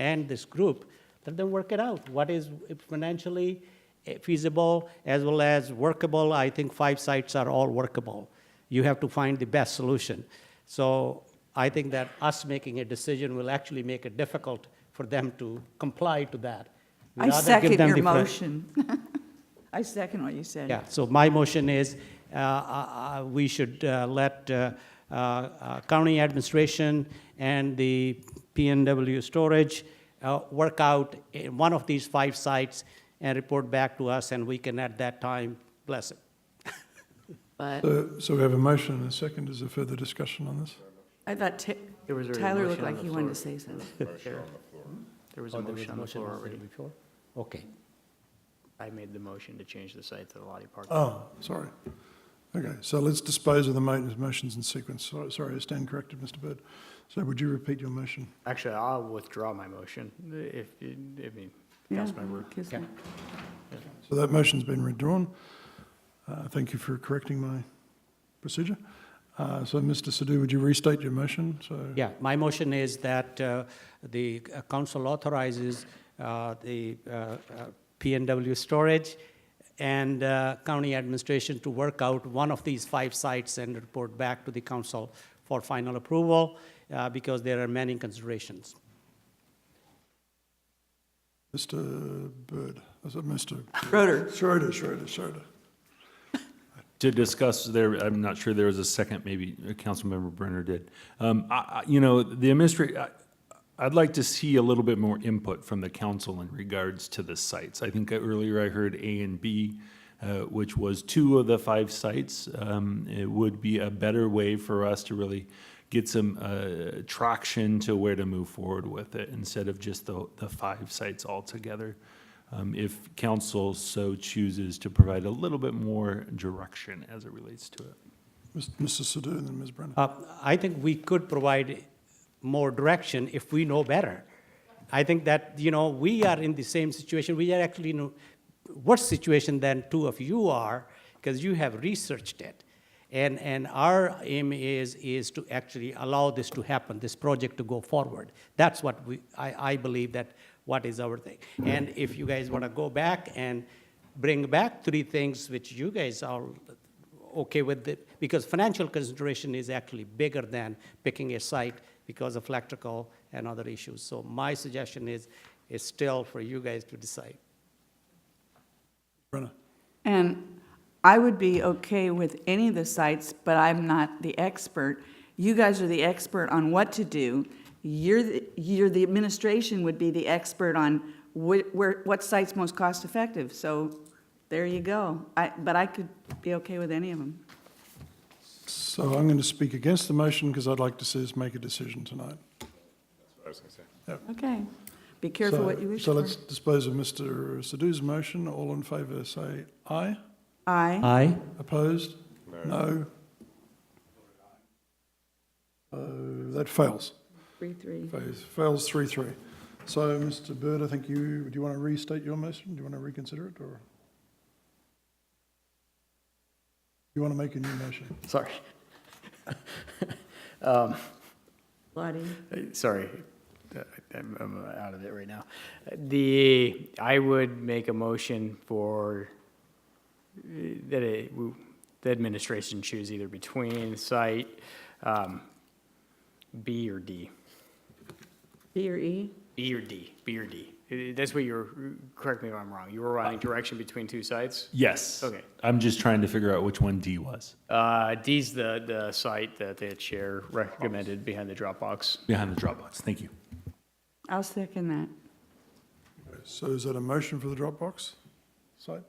and this group, let them work it out. What is financially eh, feasible as well as workable? I think five sites are all workable. You have to find the best solution. So I think that us making a decision will actually make it difficult for them to comply to that. We'd I rather give second them your the fre- motion. I second what you said. Yeah, so my motion is, uh, uh, uh, we should uh, let uh, uh, uh, county administration and the PNW storage uh, work out in one of these five sites and report back to us, and we can at that time bless it. But So Uh, so we have a motion and a second. Is there further discussion on this? I thought Ta- there was already a Tyler motion looked on like the he wanted to floor. say something. There Oh, there was a motion on the floor already. Okay. I made the motion to change the site to the Lottie Park. Oh, sorry. Okay, so let's dispose of the mo- motions in sequence. So- Sorry, I stand corrected, Mr. Bird. So would you repeat your motion? Actually, I'll withdraw my motion if, you- I mean, Yeah, Councilmember. kiss me. So that motion's been withdrawn. Uh, Thank you for correcting my procedure. Uh, So, Mr. Sadhu, would you restate your motion? So, Yeah, my motion is that uh, the uh, council authorizes uh, the uh, uh, PNW storage and uh, county administration to work out one of these five sites and report back to the council for final approval, uh, because there are many considerations. Mr. Bird, is it Mr.? Schroeder. Schroeder, Schroeder, Schroeder. To discuss there, I'm not sure there was a second, maybe uh, Councilmember Brenner did. Um, I, I, you know, the administrator, I'd like to see a little bit more input from the council in regards to the sites. I think earlier I heard A and B, uh, which was two of the five sites. Um, it would be a better way for us to really get some, uh, traction to where to move forward with it instead of just the, the five sites altogether. um, if council so chooses to provide a little bit more direction as it relates to it. Mr. Sadhu and then Ms. Brenner. Uh, I think we could provide more direction if we know better. I think that, you know, we are in the same situation, we are actually in a worse situation than two of you are, because you have researched it. And, and our aim is, is to actually allow this to happen, this project to go forward. That's what we, I, I believe that what is our thing. And if you guys want to go back and bring back three things which you guys are okay with it, because financial consideration is actually bigger than picking a site because of electrical and other issues. So my suggestion is, is still for you guys to decide. Brenner. And I would be okay with any of the sites, but I'm not the expert. You guys are the expert on what to do. You're, the- you're, the administration would be the expert on wh- where, what site's most cost-effective. So there you go. I, but I could be okay with any of them. So I'm going to speak against the motion because I'd like to see us make a decision tonight. Okay. Be careful what you wish So for. let's dispose of Mr. Sadhu's motion. All in favour, say aye. Aye. Aye. Opposed? No. Uh, That fails. Three, three. Fails- Fails three, three. So, Mr. Bird, I think you, do you want to restate your motion? Do you want to reconsider it, or? You want to make a new motion? Sorry, Lottie. Uh, sorry, Uh, I'm, I'm out of it right now. The, I would make a motion for, uh, that it, the administration choose either between site um, B or D. B or E? B or D, B or D. Uh, That's what you're, correct me if I'm wrong, you were running direction between two sites? Yes. Okay. I'm just trying to figure out which one D was, Uh, D's the, the site that the chair recommended behind the Dropbox. behind the Dropbox. Thank you. I'll second that. So is that a motion for the Dropbox site?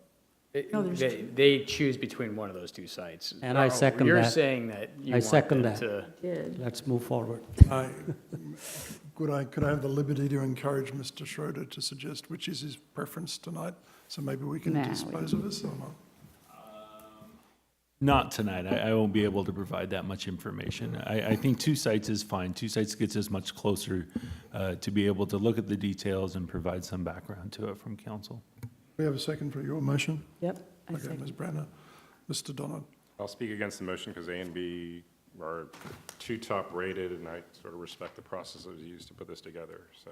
It- No, there's They, they choose between one of those two sites. And I Oh, second You're that. saying that you I want second them that. to. Did. Let's move forward. I- Could I, could I have the liberty to encourage Mr. Schroeder to suggest which is his preference tonight? So maybe we can Nah, we- dispose of this or not? Not tonight. I, I won't be able to provide that much information. I, I think two sites is fine. Two sites gets us much closer uh, to be able to look at the details and provide some background to it from council. We have a second for your motion? Yep. I Okay, second. Ms. Brenner. Mr. Donald? I'll speak against the motion because A and B are two top rated, and I sort of respect the process that was used to put this together, so.